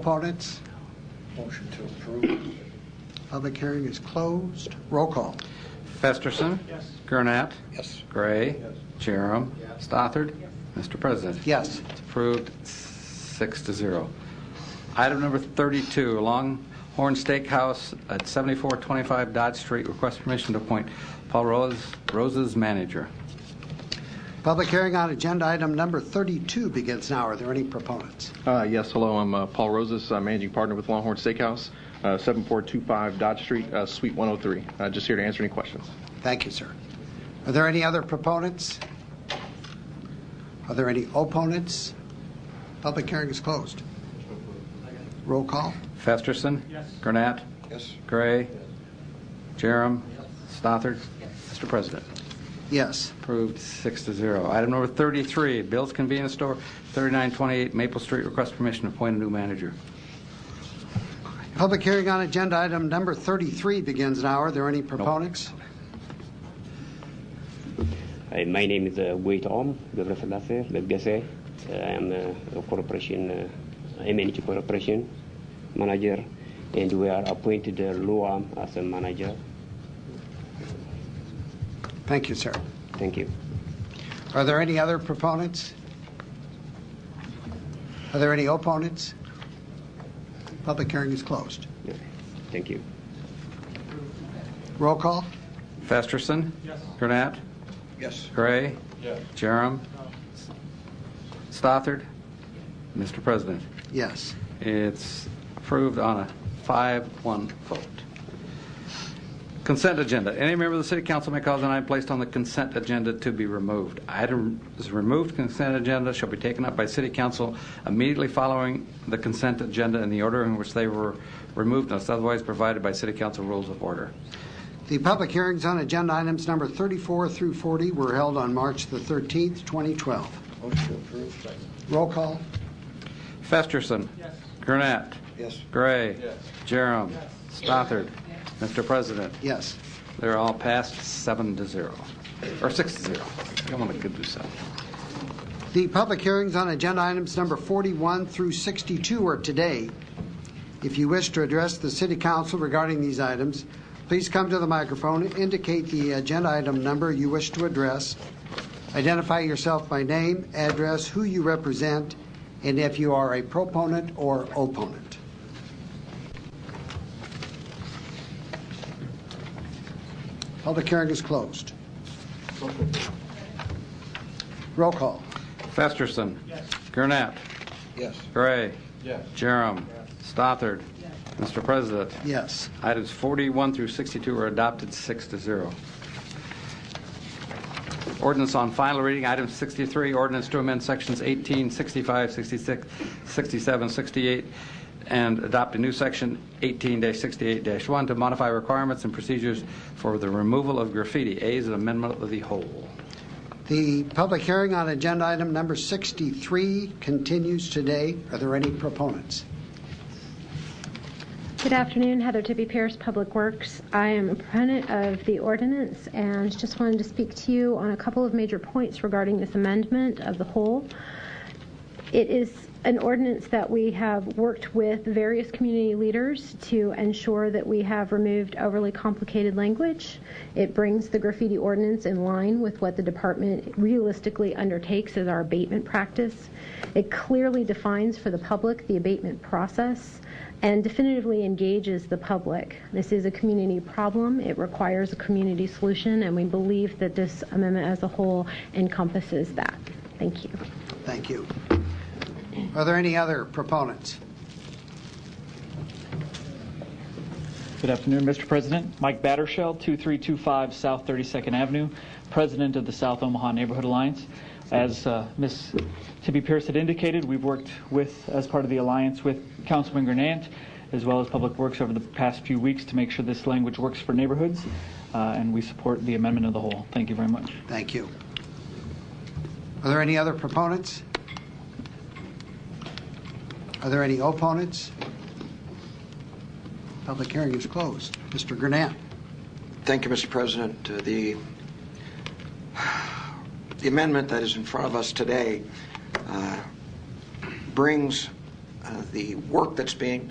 Opponents? Motion to approve. Public hearing is closed. Roll call. Festerson. Yes. Gurnett. Yes. Gray. Yes. Jerem. Stothard. Mr. President. Yes. It's approved six to zero. Item number 32, Longhorn Steakhouse at 7425 Dodge Street, request permission to appoint Paul Rose Rose's manager. Public hearing on agenda item number 32 begins now. Are there any proponents? Uh, Yes, hello, I'm uh, Paul Rosas, I'm managing partner with Longhorn Steakhouse, uh, 7425 Dodge Street, uh, Suite 103. Uh, Just here to answer any questions. Thank you, sir. Are there any other proponents? Are there any opponents? Public hearing is closed. Roll call. Festerson. Yes. Gurnett. Yes. Gray. Jerem. Stothard. Mr. President. Yes. Approved six to zero. Item number 33, Bill's Convenience Store, 3928 Maple Street, request permission to appoint a new manager. Public hearing on agenda item number 33 begins now. Are there any proponents? Uh, my name is uh, Wei Tom, Gabriel Falase, Lebgase. Uh, I am uh, a corporation, uh, MNH corporation manager, and we are appointed uh, Luam as a manager. Thank you, sir. Thank you. Are there any other proponents? Are there any opponents? Public hearing is closed. Yeah. Thank you. Roll call. Festerson. Yes. Gurnett. Yes. Gray. Yes. Jerem. Stothard. Mr. President, Yes. it's approved on a 5-1 vote. Consent agenda. Any member of the city council may cause an item placed on the consent agenda to be removed. Items removed consent agenda shall be taken up by city council immediately following the consent agenda in the order in which they were removed unless otherwise provided by city council rules of order. The public hearings on agenda items number 34 through 40 were held on March the 13th, 2012. Motion to approve. Second. Roll call. Festerson. Yes. Gurnett. Yes. Gray. Yes. Jerem. Stothard. Mr. President, Yes. they're all passed seven to zero, or six to zero. Come on, I could do seven. The public hearings on agenda items number 41 through 62 are today. If you wish to address the city council regarding these items, please come to the microphone, indicate the agenda item number you wish to address, identify yourself by name, address, who you represent, and if you are a proponent or opponent. Public hearing is closed. Roll call. Festerson. Gurnett. Yes. Gray. Yes. Jerem. Stothard. Mr. President, Yes. items 41 through 62 are adopted six to zero. Ordinance on final reading, item 63, ordinance to amend sections 18, 65, 66, 67, 68, and adopt a new section 18-68-1 to modify requirements and procedures for the removal of graffiti. A is an amendment of the whole. The public hearing on agenda item number 63 continues today. Are there any proponents? Good afternoon, Heather Tippy Pierce, Public Works. I am a proponent of the ordinance and just wanted to speak to you on a couple of major points regarding this amendment of the whole. It is an ordinance that we have worked with various community leaders to ensure that we have removed overly complicated language. It brings the graffiti ordinance in line with what the department realistically undertakes as our abatement practice. It clearly defines for the public the abatement process and definitively engages the public. This is a community problem. It requires a community solution, and we believe that this amendment as a whole encompasses that. Thank you. Thank you. Are there any other proponents? Good afternoon, Mr. President. Mike Battershell, 2325 South 32nd Avenue, President of the South Omaha Neighborhood Alliance. As uh, Ms. Tippy Pierce had indicated, we've worked with, as part of the alliance, with Councilman Grenant, as well as Public Works over the past few weeks to make sure this language works for neighborhoods, uh, and we support the amendment of the whole. Thank you very much. Thank you. Are there any other proponents? Are there any opponents? Public hearing is closed. Mr. Gurnett. Thank you, Mr. President. Uh, The the amendment that is in front of us today uh, brings uh, the work that's being